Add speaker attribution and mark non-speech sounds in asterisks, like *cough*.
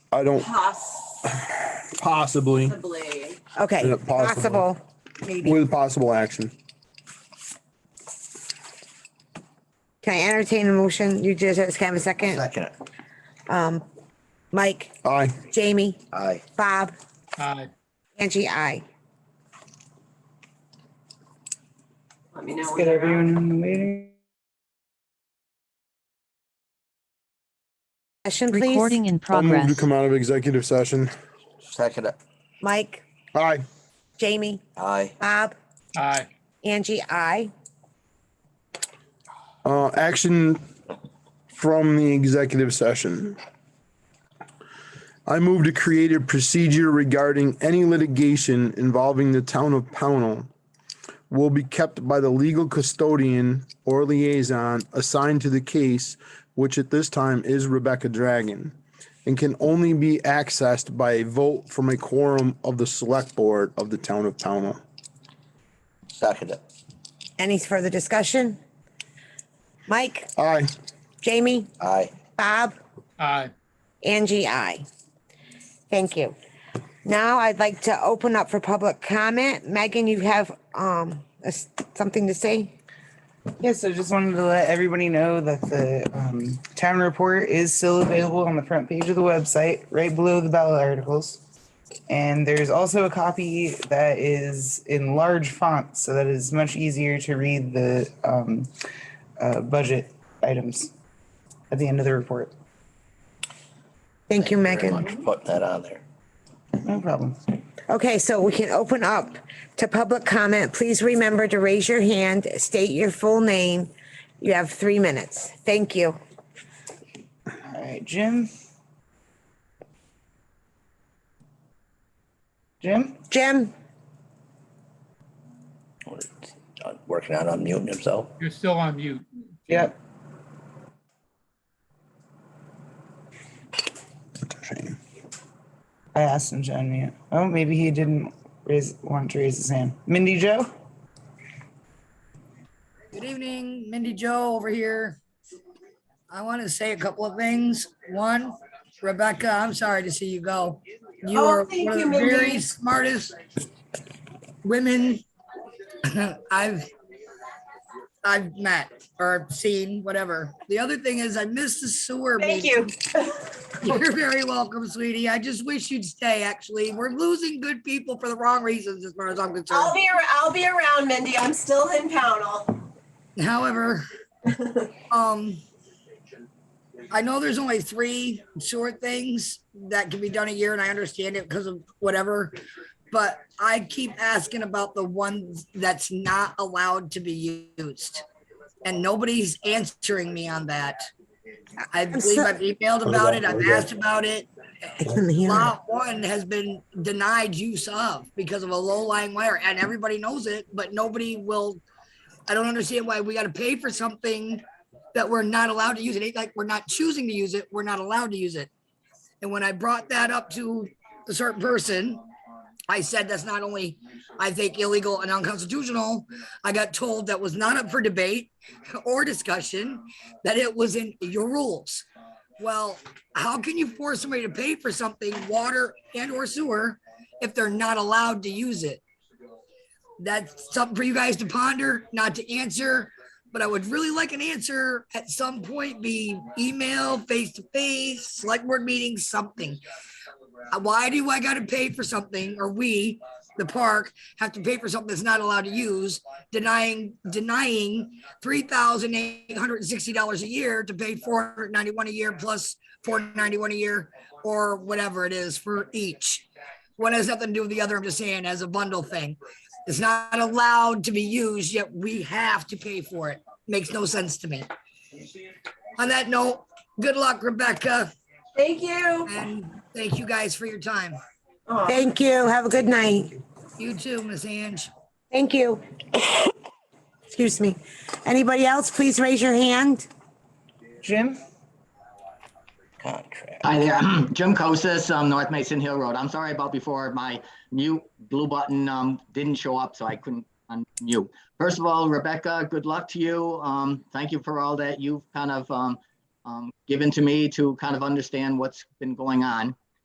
Speaker 1: I don't
Speaker 2: Possibly.
Speaker 3: possibly.
Speaker 1: Yeah,
Speaker 4: Okay,
Speaker 1: possible.
Speaker 4: possible, maybe.
Speaker 1: with possible action.
Speaker 4: Can I entertain a motion? You just, just have a second? Um,
Speaker 5: Second it.
Speaker 4: Mike,
Speaker 1: Aye.
Speaker 4: Jamie,
Speaker 5: Aye.
Speaker 4: Bob,
Speaker 6: aye,
Speaker 4: Angie, I.
Speaker 2: Let me know.
Speaker 7: Get
Speaker 2: when you're out.
Speaker 7: everyone in the meeting.
Speaker 4: Session, please.
Speaker 8: Recording in
Speaker 1: I'll move to
Speaker 8: progress.
Speaker 1: come out of executive session.
Speaker 5: Second it.
Speaker 4: Mike,
Speaker 1: Aye.
Speaker 4: Jamie,
Speaker 5: Aye.
Speaker 4: Bob,
Speaker 6: aye.
Speaker 4: Angie, I.
Speaker 1: Uh, action from the executive session. I move to create a procedure regarding any litigation involving the town of Pownell will be kept by the legal custodian or liaison assigned to the case, which at this time is Rebecca Dragon, and can only be accessed by a vote from a quorum of the select board of the town of Pownell.
Speaker 5: Second it.
Speaker 4: Any further discussion? Mike,
Speaker 1: Aye.
Speaker 4: Jamie,
Speaker 5: Aye.
Speaker 4: Bob,
Speaker 6: Aye.
Speaker 4: Angie, I. Thank you. Now I'd like to open up for public comment. Megan, you have, um, a s- something to say?
Speaker 7: Yes, I just wanted to let everybody know that the um, town report is still available on the front page of the website, right below the ballot articles. And there's also a copy that is in large font, so that it's much easier to read the um, uh, budget items at the end of the report.
Speaker 4: Thank you,
Speaker 5: Very
Speaker 4: Megan.
Speaker 5: much for putting that on there.
Speaker 7: No problem.
Speaker 4: Okay, so we can open up to public comment. Please remember to raise your hand, state your full name. You have three minutes. Thank you.
Speaker 7: All right, Jim. Jim?
Speaker 4: Jim,
Speaker 5: uh, Working on unmuting himself.
Speaker 6: You're still on mute.
Speaker 7: Yep. I asked him to unmute. Oh, maybe he didn't raise, want to raise his hand. Mindy Joe?
Speaker 9: Good evening, Mindy Joe over here. I want to say a couple of things. One, Rebecca, I'm sorry to see you go. You
Speaker 2: Oh,
Speaker 9: are
Speaker 2: thank
Speaker 9: one of
Speaker 2: you,
Speaker 9: the
Speaker 2: Mindy.
Speaker 9: very smartest women *clears throat* I've I've met or seen, whatever. The other thing is I miss the sewer.
Speaker 2: Thank
Speaker 9: meeting.
Speaker 2: you.
Speaker 9: *laughs* You're very welcome, sweetie. I just wish you'd stay, actually. We're losing good people for the wrong reasons as far as I'm concerned.
Speaker 2: I'll be, ar- I'll be around, Mindy. I'm still in Pownell.
Speaker 9: However, um, I know there's only three short things that can be done a year and I understand it because of whatever. But I keep asking about the one that's not allowed to be used. And nobody's answering me on that. I believe
Speaker 4: so-
Speaker 9: I've emailed about it. I've asked about it.
Speaker 4: I couldn't hear. him.
Speaker 9: Lot one has been denied use of because of a low lying wire and everybody knows it, but nobody will. I don't understand why we gotta pay for something that we're not allowed to use. It ain't like we're not choosing to use it, we're not allowed to use it. And when I brought that up to a certain person, I said that's not only, I think illegal and unconstitutional, I got told that was not up for debate or discussion, that it was in your rules. Well, how can you force somebody to pay for something, water and or sewer, if they're not allowed to use it? That's something for you guys to ponder, not to answer, but I would really like an answer at some point, be email, face to face, select board meeting, something. Uh, Why do I gotta pay for something, or we, the park, have to pay for something that's not allowed to use, denying, denying three thousand eight hundred and sixty dollars a year to pay four hundred ninety-one a year plus four ninety-one a year or whatever it is for each. One has nothing to do with the other. I'm just saying as a bundle thing. It's not allowed to be used, yet we have to pay for it. Makes no sense to me. On that note, good luck, Rebecca,
Speaker 2: Thank you.
Speaker 9: and thank you guys for your time.
Speaker 2: Aw.
Speaker 4: Thank you. Have a good night.
Speaker 9: You too, Miss Ange.
Speaker 4: Thank you. *coughs* Excuse me. Anybody else, please raise your hand.
Speaker 7: Jim?
Speaker 5: Contract.
Speaker 10: Hi there, *clears throat* Jim Kosis, um, North Mason Hill Road. I'm sorry about before, my mute blue button, um, didn't show up, so I couldn't unmute. First of all, Rebecca, good luck to you. Um, thank you for all that you've kind of, um, um, given to me to kind of understand what's been going on.